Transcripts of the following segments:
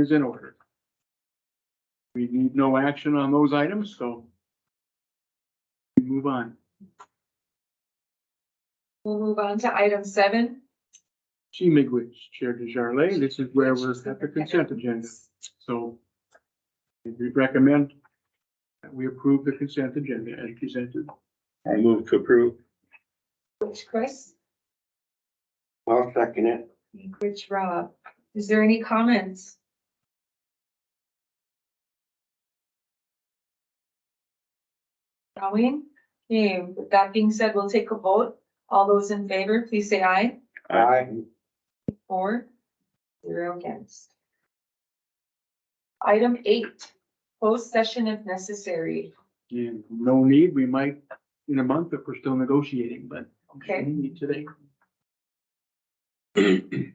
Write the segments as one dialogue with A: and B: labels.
A: is in order. We need no action on those items, so we move on.
B: We'll move on to item seven.
A: G. Migwitch, Chair DeJarle, this is where we're at the consent agenda, so we recommend that we approve the consent agenda as presented.
C: I move to approve.
B: Which Chris,
C: I'll second it.
B: which Rob, is there any comments? Going, okay, with that being said, we'll take a vote. All those in favor, please say aye.
C: Aye.
B: Four, zero against. Item eight, closed session if necessary.
A: And no need, we might in a month if we're still negotiating, but
B: Okay.
A: we need today.
C: Um,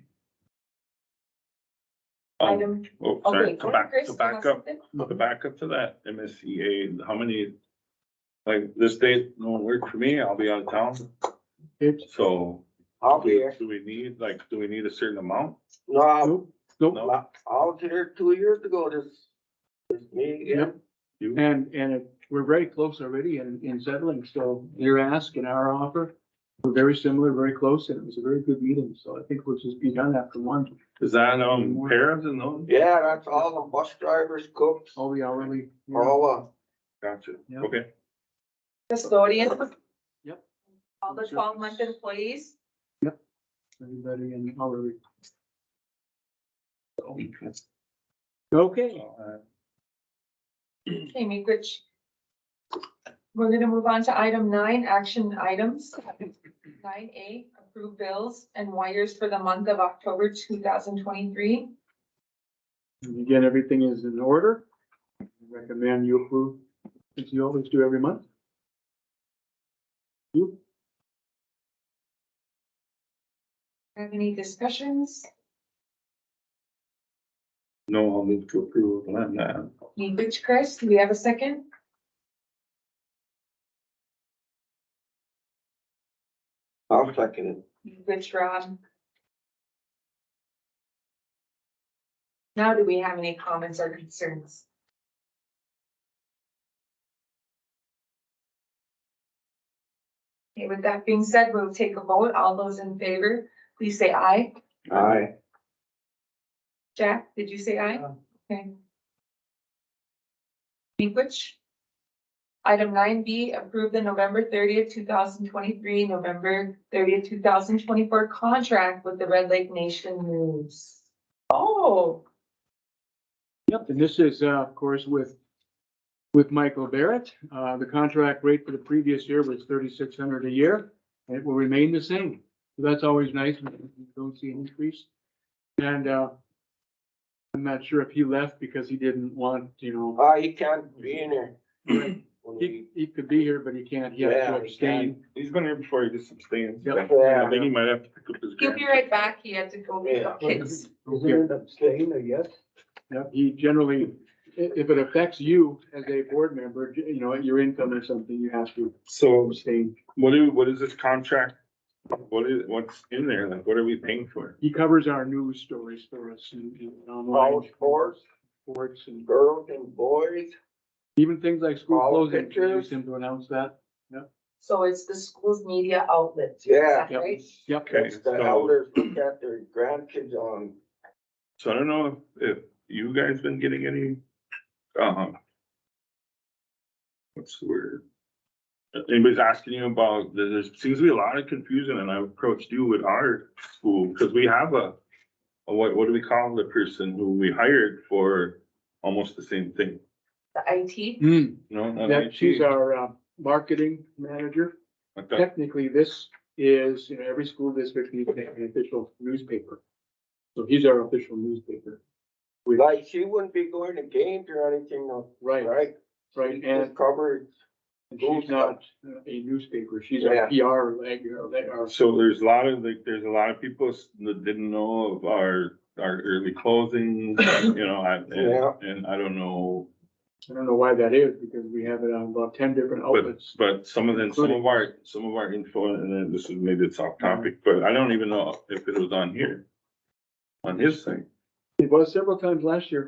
B: Item,
C: oh, sorry,
B: okay,
C: go back,
B: Chris,
C: go
B: you have
C: back up,
B: something?
C: go
A: Mm-hmm.
C: back up to that MSCA, how many? Like this day, no one worked for me, I'll be out of town,
A: It's,
C: so.
D: I'll be here.
C: Do we need, like, do we need a certain amount?
D: No,
A: nope, nope.
C: No,
D: I I was here two years ago, this, this me, yeah.
A: Yep.
C: you,
A: And, and it- we're very close already in, in settling, so your ask and our offer were very similar, very close, and it was a very good meeting, so I think we'll just be done after lunch.
C: is that, um, parents and those?
D: Yeah, that's all the bus drivers, cooks,
A: All the hourly.
D: all,
C: Gotcha,
A: Yeah.
C: okay.
B: Custodian.
A: Yep.
B: All the twelve month employees.
A: Everybody in hourly. Okay,
C: Uh,
B: Okay, Amy Rich. We're gonna move on to item nine, action items. Nine A, approve bills and wires for the month of October two thousand twenty-three.
A: and again, everything is in order. I Recommend you approve, as you always do every month. You,
B: Have any discussions?
C: No, I'll move to approve on that.
B: Amy Rich, Chris, do we have a second?
D: uh, I'll second it.
B: Amy Rich, Rob. Now, do we have any comments or concerns? Okay, with that being said, we'll take a vote. All those in favor, please say aye.
D: Aye.
B: Jack, did you say aye? Okay. Language. Item nine B, approve the November thirtieth, two thousand twenty-three, November thirtieth, two thousand twenty-four contract with the Red Lake Nation News. Oh,
A: Yep, and this is, uh, of course, with, with Michael Barrett. Uh, the contract rate for the previous year was thirty-six hundred a year, and it will remain the same. So that's always nice, when you don't see an increase. And, uh, I'm not sure if he left because he didn't want, you know,
D: Uh, he can't be in here. When
A: he,
D: we-
A: he could be here, but he can't, he has to
D: Yeah, he
A: abstain.
C: He's been here before, he just abstains.
A: Yep.
C: I think he might have to pick up his.
B: he'll be right back. He had to go meet the kids.
D: abstain, I guess?
A: Yep, he generally, i- if it affects you as a board member, you know, your income or something, you have to
C: So
A: abstain.
C: What do, what is this contract? What is, what's in there? Like, what are we paying for?
A: He covers our news stories for us and, and
D: All
A: online
D: sports,
A: sports and
D: girls and boys,
A: even things like school
D: All
A: closing. We
D: pictures.
A: Use him to announce that.
B: So it's the school's media outlet. Is
D: Yeah.
B: that Right?
A: Yep.
C: Okay,
D: It's the
C: so,
D: elders look at their grandkids on,
C: so I don't know if, if you guys been getting any, um, what's the word? Anybody's asking you about, there, there seems to be a lot of confusion and I approached you with our school, because we have a, a what, what do we call the person who we hired for almost the same thing?
B: The IT.
A: Hmm,
C: No, not
A: yeah, she's
C: IT.
A: our, uh, marketing manager.
C: Like that.
A: Technically, this is, you know, every school district needs to have an official newspaper. So he's our official newspaper.
D: like, she wouldn't be going to games or anything, no,
A: Right,
D: right?
A: right. And
D: Just covered,
A: and she's not uh, a newspaper. She's a
D: Yeah.
A: PR, like, you know, they are.
C: So there's a lot of, like, there's a lot of people s- that didn't know of our, our early closing, you know, I-
D: Yeah.
C: and, and I don't know.
A: I don't know why that is because we have it on about ten different
C: But,
A: outlets.
C: but some of them, some of
A: Including-
C: our, some of our info, and then this is, maybe it's off topic, but I don't even know if it was on here. On his thing,
A: It was several times last year.